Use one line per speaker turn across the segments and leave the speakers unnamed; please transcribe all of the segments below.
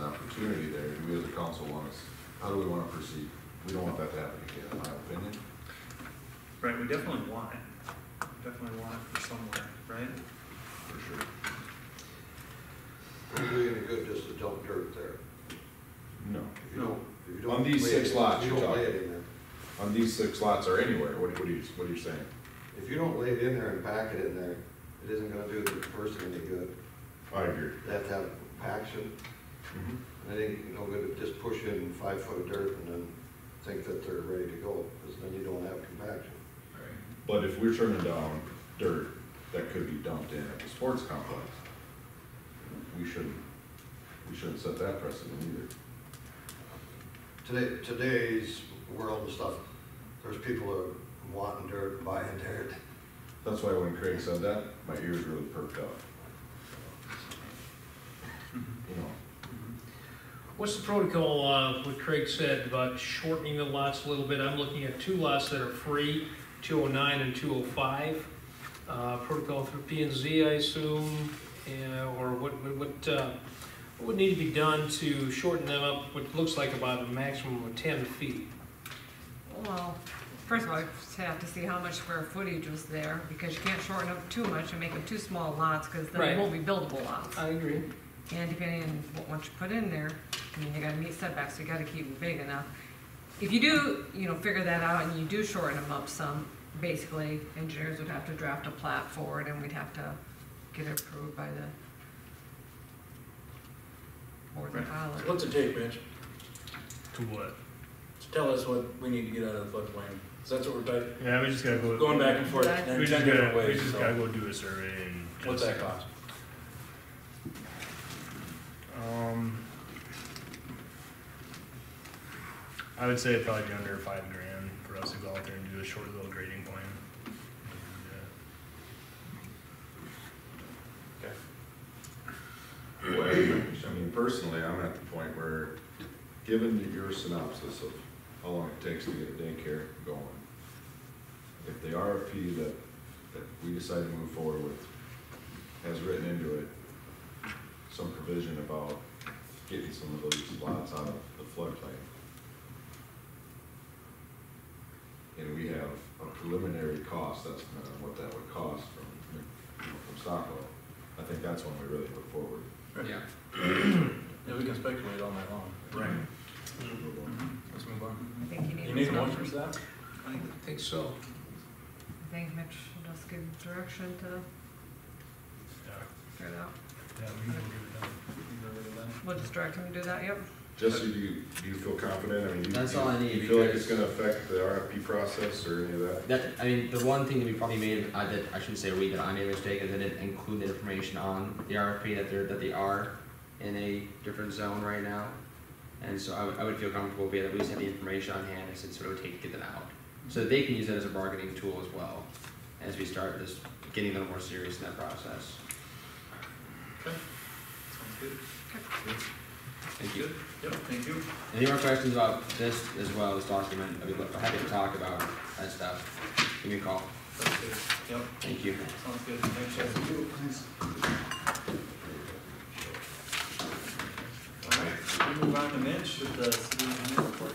opportunity there, do we as a council want us, how do we wanna proceed? We don't want that to happen again, in my opinion.
Right, we definitely want it. We Definitely want it for somewhere, right?
For sure.
It'd do you any good just to dump dirt there.
No.
If you don't- if you don't
On these
lay it-
six lots
If you
you're
don't lay
talking.
it in there,
On these six lots or anywhere, what, what are you, what are you saying?
if you don't lay it in there and pack it in there, it isn't gonna do the person any good.
I agree.
They have to have paction,
Mm-hmm.
and I think, you know, we just push in five foot of dirt and then think that they're ready to go, because then you don't have compaction.
But if we're turning down dirt that could be dumped in at the sports complex, we shouldn't, we shouldn't set that precedent either.
Today, today's world and stuff, there's people that are wanting dirt and buying dirt.
That's why when Craig said that, my ears really perked up, you know.
What's the protocol, uh, what Craig said about shortening the lots a little bit? I'm looking at two lots that are free, 209 and 205. Uh, Protocol through P and Z, I assume, eh, or what, what- what, uh, what would need to be done to shorten them up, what looks like about a maximum of 10 feet?
Well, first of all, I just have to see how much square footage was there, because you can't shorten up too much and make them too small lots, because then
Right.
they won't be buildable lots.
I agree.
And depending on what, what you put in there, I mean, you gotta meet setbacks, so you gotta keep them big enough. If you do, you know, figure that out and you do shorten them up some, basically, engineers would have to draft a plat for it, and we'd have to get it approved by the board and file it.
What's it take, Mitch,
To what?
to tell us what we need to get out of the floodplain? 'Cause that's what we're di-
Yeah, we just gotta go.
going back and forth,
That's-
We
and
just
ten different
gotta, we
ways,
just
so.
gotta go do a survey and.
What's
just-
that cost?
Um. I would say it'd probably be under five grand for us to go out there and do a short little grading plan. uh, And,
Well, I mean, personally, I'm at the point where, given your synopsis of how long it takes to get a daycare going, if the RFP that, that we decide to move forward with has written into it some provision about getting some of those lots out of the floodplain, and we have a preliminary cost estimate on what that would cost from, you know, from Stockwell, I think that's when we really look forward.
Yeah. Yeah, we can speculate all night long.
Right.
Let's move on.
I think you need.
You need a
those
motion
numbers.
for that?
I think so.
I think Mitch will just give direction to
uh,
figure it out.
Yeah, yeah, we can get it done.
We'll just direct him to do that, yep.
Jesse, do you, do you feel confident? I mean, you-
That's all I
you-
need
You feel like it's
because-
gonna affect the RFP process or any of that?
That I mean, the one thing that we probably made uh, that I shouldn't say we that I made a mistake is I didn't include the information on the RFP that they're that they are in a different zone right now, and so I would- I would feel comfortable being that we just have the information on hand and sort of take get them out so that they can use that as a bargaining tool as well as we start this getting them more serious in that process.
Sounds good.
Thank you.
Yep, thank you.
Any more questions about this as well this document? I'd be happy to talk about that stuff. Give me a call.
That's good. Yep,
Thank you.
sounds good. Thanks, Jesse. All right, we move on to Mitch with the city engineer report.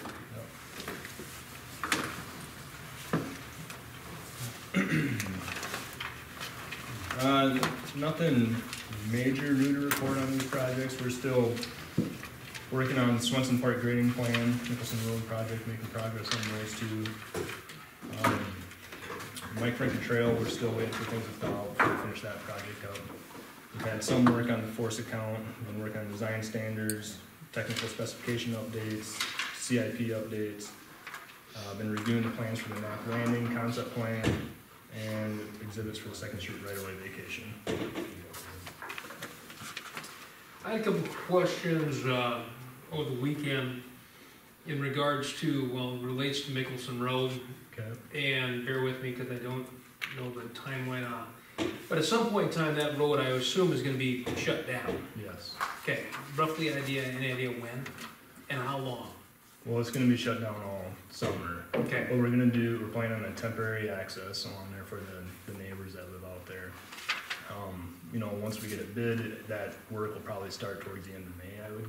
Uh, nothing major new to report on these projects. We're still working on Swenson Park grading plan, Nicholson Road project, making progress on those two. Um, Mike Franken Trail, we're still waiting for things to thaw out to finish that project up. We've had some work on the force account, been working on design standards, technical specification updates, CIP updates. Uh, been reviewing the plans for the Knock Landing concept plan, and exhibits for the Second Street right away vacation.
I had a couple questions uh, over the weekend in regards to, well, relates to Mickelson Road.
Okay.
and bear with me because I don't know the timeline on. But at some point in time, that road, I assume, is gonna be shut down.
Yes.
Okay, roughly idea, any idea when and how long?
Well, it's gonna be shut down all summer.
Okay,
What we're gonna do, we're planning on a temporary access on there for the, the neighbors that live out there. Um, you know, once we get it bid, that work will probably start towards the end of May, I would